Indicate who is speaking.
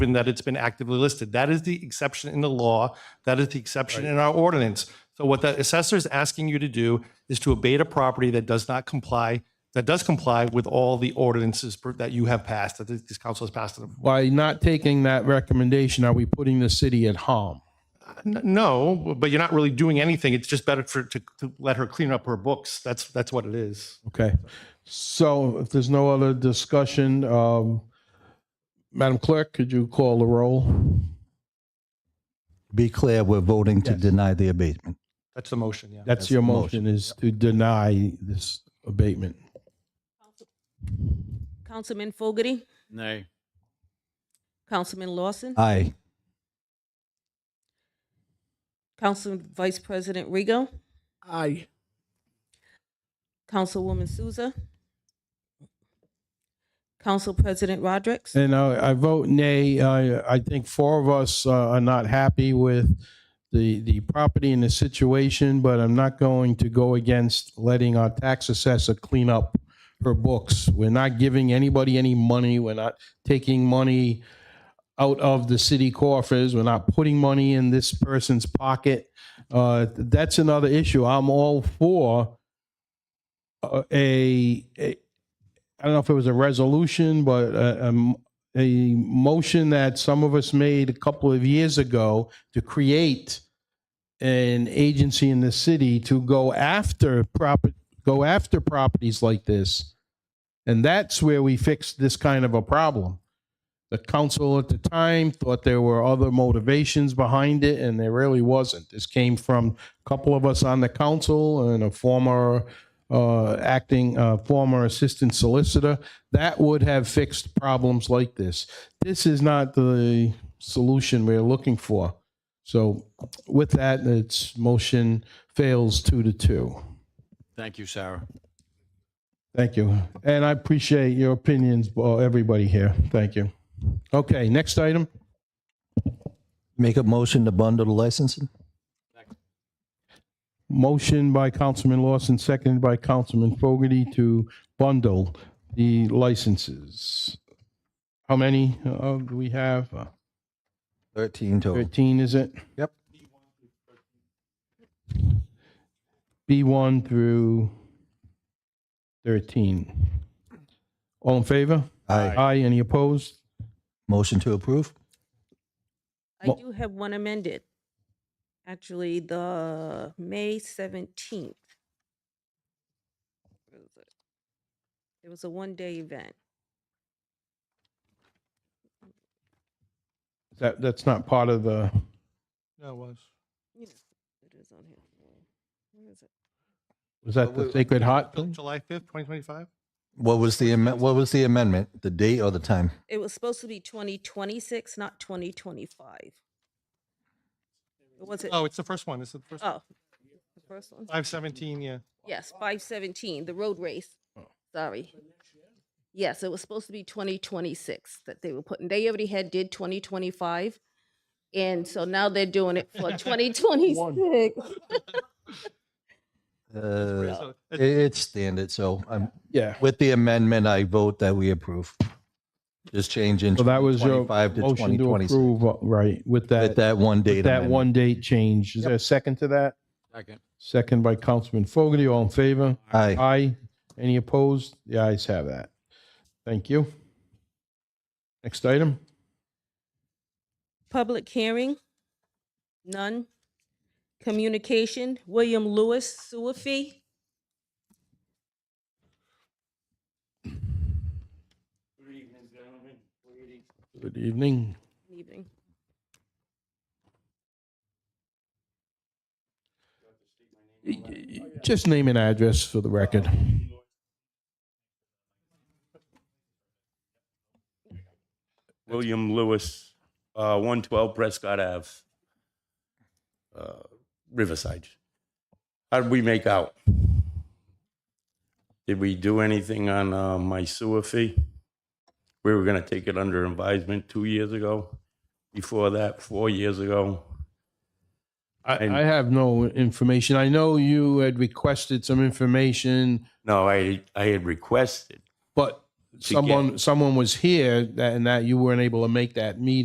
Speaker 1: been that it's been actively listed. That is the exception in the law. That is the exception in our ordinance. So what the assessor is asking you to do is to abate a property that does not comply, that does comply with all the ordinances per- that you have passed, that this this council has passed.
Speaker 2: By not taking that recommendation, are we putting the city at harm?
Speaker 1: N- No, but you're not really doing anything. It's just better for, to, to let her clean up her books. That's, that's what it is.
Speaker 2: Okay. So if there's no other discussion, um, Madam Clerk, could you call the roll?
Speaker 3: Be clear, we're voting to
Speaker 2: Yes.
Speaker 3: deny the abatement.
Speaker 1: That's the motion, yeah.
Speaker 2: That's your
Speaker 3: the
Speaker 2: motion is to deny this abatement.
Speaker 4: Councilman Fogarty,
Speaker 5: Nay.
Speaker 4: Councilman Lawson,
Speaker 3: Aye.
Speaker 4: Council Vice President Rigo,
Speaker 6: Aye.
Speaker 4: Councilwoman Souza, Council President Rodrick,
Speaker 2: And I, I vote nay. I, I think four of us uh, are not happy with the, the property and the situation, but I'm not going to go against letting our tax assessor clean up her books. We're not giving anybody any money. We're not taking money out of the city coffers. We're not putting money in this person's pocket. Uh, that's another issue. I'm all for uh, a, a, I don't know if it was a resolution, but uh, um, a, a m- a motion that some of us made a couple of years ago to create an agency in the city to go after proper, go after properties like this. And that's where we fixed this kind of a problem. The council at the time thought there were other motivations behind it, and there really wasn't. This came from a couple of us on the council and a former uh, acting uh, former assistant solicitor. That would have fixed problems like this. This is not the solution we're looking for. So, with that, its motion fails two to two.
Speaker 5: Thank you, Sarah.
Speaker 2: Thank you. And I appreciate your opinions, uh, everybody here. Thank you. Okay, next item.
Speaker 3: Make a motion to bundle the licensing?
Speaker 2: Motion by Councilman Lawson, seconded by Councilman Fogarty to bundle the licenses. How many uh, do we have? Uh,
Speaker 3: 13 total.
Speaker 2: 13, is it?
Speaker 3: Yep.
Speaker 2: B1 through 13. All in favor?
Speaker 3: Aye.
Speaker 2: Aye, any opposed?
Speaker 3: Motion to approve?
Speaker 4: I
Speaker 2: Well-
Speaker 4: do have one amended. Actually, the May seventeenth. It was a one-day event.
Speaker 2: That, that's not part of the,
Speaker 1: That was.
Speaker 4: Yes, It is on here. Where is it?
Speaker 2: was that the Sacred Heart? thing?
Speaker 1: July 5th, 2025?
Speaker 3: What was the amendment, what was the amendment? The date or the time?
Speaker 4: It was supposed to be twenty twenty-six, not twenty twenty-five. Was it?
Speaker 1: Oh, it's the first one. It's the first,
Speaker 4: Oh, the first one?
Speaker 1: 517, yeah.
Speaker 4: Yes, five seventeen, the road race. Sorry. Yes, it was supposed to be twenty twenty-six that they were putting, they already had did twenty twenty-five. And so now they're doing it for twenty twenty-six.
Speaker 3: Uh,
Speaker 1: So
Speaker 3: it-
Speaker 1: it's-
Speaker 3: It's standard, so I'm,
Speaker 2: Yeah.
Speaker 3: with the amendment, I vote that we approve. Just change in
Speaker 2: So that was your
Speaker 3: 25 to
Speaker 2: motion to
Speaker 3: 2026.
Speaker 2: approve, uh, right, with
Speaker 3: With
Speaker 2: that,
Speaker 3: that one date
Speaker 2: with that
Speaker 3: amendment.
Speaker 2: one date change. Is there a second to that?
Speaker 5: Second.
Speaker 2: Second by Councilman Fogarty, all in favor?
Speaker 3: Aye.
Speaker 2: Aye. Any opposed? The ayes have that. Thank you. Next item.
Speaker 4: Public hearing? None. Communication, William Lewis, sewer fee?
Speaker 2: Good evening.
Speaker 4: Evening.
Speaker 2: Just name and address for the record.
Speaker 7: William Lewis, uh, 112 Prescott Ave, uh, Riverside. How did we make out? Did we do anything on uh, my sewer fee? We were going to take it under advisement two years ago. Before that, four years ago.
Speaker 2: I,
Speaker 7: And-
Speaker 2: I have no information. I know you had requested some information,
Speaker 7: No, I, I had requested
Speaker 2: but
Speaker 7: get-
Speaker 2: someone, someone was here that- and that you weren't able to make that meeting.